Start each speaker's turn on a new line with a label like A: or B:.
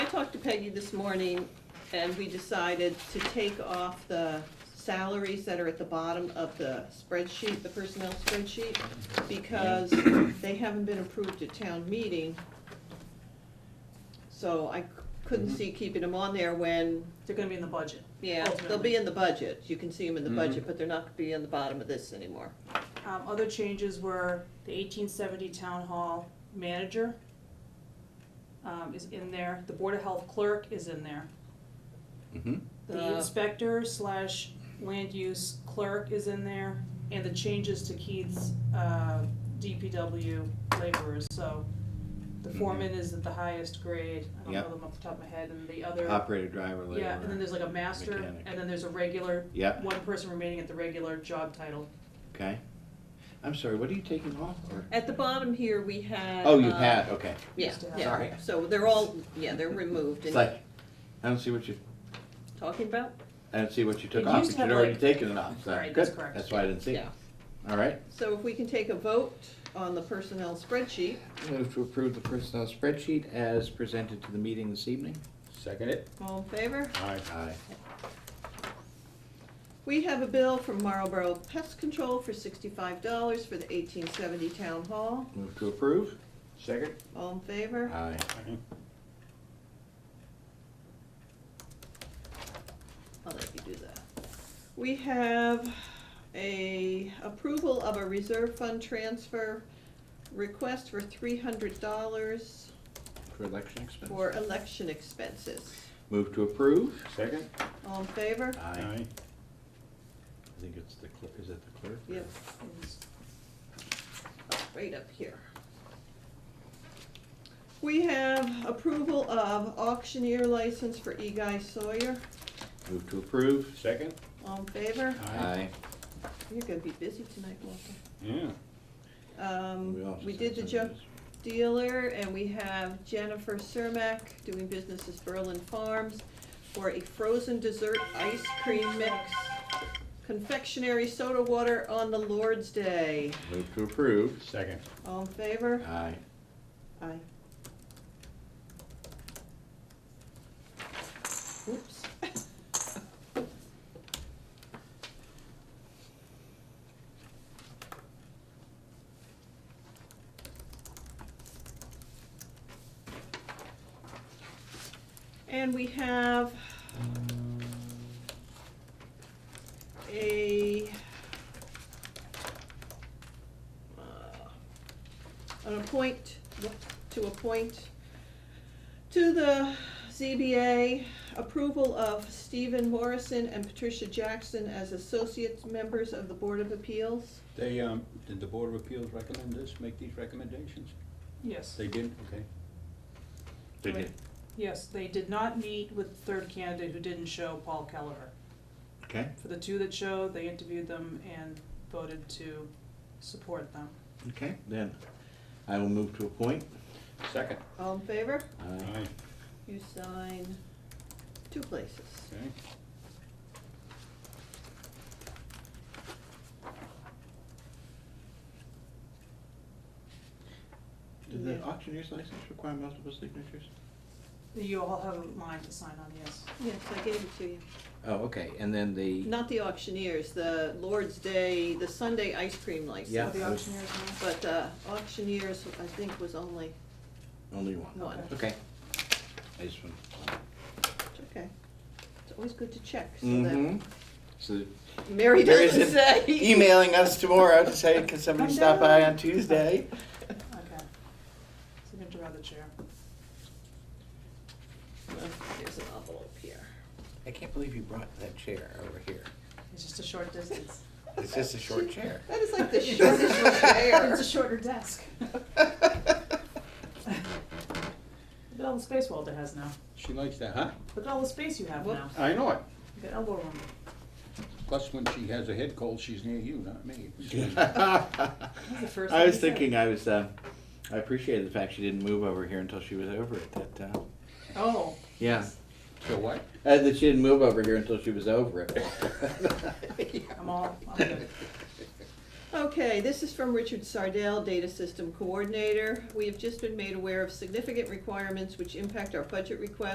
A: talked to Peggy this morning, and we decided to take off the salaries that are at the bottom of the spreadsheet, the personnel spreadsheet, because they haven't been approved at town meeting. So I c- couldn't see keeping them on there when,
B: They're gonna be in the budget.
A: yeah, they'll
B: ultimately.
A: be in the budget, you can see them in the
C: Mhm.
A: budget, but they're not gonna be on the bottom of this anymore.
B: Um, other changes were the eighteen seventy town hall manager um, is in there, the board of health clerk is in there.
C: Mm-hmm.
B: The
A: Uh.
B: inspector slash land use clerk is in there, and the changes to Keith's, uh, DPW laborers, so the foreman is at the highest grade, I don't
C: Mhm. Yep.
B: know them off the top of my head, and the other,
C: Operator, driver, laborer.
B: yeah, and then there's like a master,
C: Mechanic.
B: and then there's a regular,
C: Yep,
B: one person remaining at the regular job title.
C: okay. I'm sorry, what are you taking off? or-
A: At the bottom here, we had.
C: Oh, you
A: uh,
C: had, okay.
A: Yeah,
B: Used to have.
A: yeah,
C: Sorry.
A: so they're all, yeah, they're removed,
C: It's
A: and
C: like, I don't see what you,
A: talking about,
C: I don't see what you took
B: It
C: off,
B: used
C: but
B: to
C: you'd
B: have,
C: already
B: like-
C: taken it off, so,
B: Right, that's
C: good,
B: correct.
C: that's why I didn't see it.
A: yeah.
C: All right,
A: So if we can take a vote on the personnel spreadsheet,
C: move to approve the personnel spreadsheet as presented to the meeting this evening.
D: Second it?
A: all in favor?
C: Aye. Aye.
A: We have a bill from Marlboro Pest Control for sixty-five dollars for the eighteen seventy town hall,
C: Move to approve?
D: Second?
A: all in favor?
C: Aye.
A: I'll let you do that. We have a approval of a reserve fund transfer request for three hundred dollars
C: For election expense.
A: for election expenses,
C: Move to approve?
D: Second?
A: all in favor?
C: Aye. I think it's the clerk, is it the clerk?
A: Yep, it's right up here. We have approval of auctioneer license for E. Guy Sawyer.
C: Move to approve?
D: Second?
A: All in favor?
C: Aye.
A: You're gonna be busy tonight, Walter.
D: Yeah.
C: We also
A: Um, we
C: said
A: did the
C: some of
A: junk
C: this.
A: dealer, and we have Jennifer Cermak doing business as Berlin Farms for a frozen dessert ice cream mix, confectionery soda water on the Lord's Day.
C: Move to approve?
D: Second.
A: All in favor?
C: Aye.
A: Aye. Oops. And we have a uh, an appoint, to appoint to the ZBA approval of Stephen Morrison and Patricia Jackson as associate members of the Board of Appeals.
D: They, um, did the Board of Appeals recommend this, make these recommendations?
B: Yes.
D: They did, okay.
C: They
A: Right.
C: did.
B: Yes, they did not meet with the third candidate who didn't show, Paul Kelleher.
C: Okay,
B: For the two that showed, they interviewed them and voted to support them.
C: okay, then I will move to appoint. uh,
D: Second?
A: All in favor?
C: Aye.
A: You sign two places.
D: Okay.
C: Did the
A: Yeah.
C: auctioneer's license require multiple signatures?
B: You all have a line to sign on, yes.
A: Yes, I gave it to you.
C: Oh, okay, and then the,
A: Not the auctioneers, the Lord's Day, the Sunday ice cream license.
C: Yeah.
B: So the auctioneer's line?
A: But uh, auctioneers, I think, was only
C: only one,
A: one.
C: okay. I just want.
A: It's Okay. It's always good to check, so that
C: Mm-hmm. So
A: Mary
C: There
A: doesn't
C: isn't
A: say.
C: emailing us tomorrow to say, can somebody
B: Come
C: stop by
B: down."
C: on Tuesday?
B: Okay. Signature of the chair.
A: There's an envelope here.
C: I can't believe you brought that chair over here.
B: It's just a short distance.
C: It's just a short chair.
A: That is like the shortest chair.
B: It's a shorter desk. Look at all the space Walter has now.
D: She likes that, huh?
B: Look at all the space you have
A: Whoop.
B: now.
D: I know it.
B: You got elbow room.
D: Plus, when she has a head cold, she's near you, not me.
B: That's the first
C: I
B: thing
C: was
B: he said.
C: thinking, I was, uh, I appreciated the fact she didn't move over here until she was over at that town.
B: Oh,
C: Yeah,
D: So what?
C: uh, that she didn't move over here until she was over it.
B: I'm all, I'm good.
A: Okay, this is from Richard Sardell, Data System Coordinator. We have just been made aware of significant requirements which impact our budget request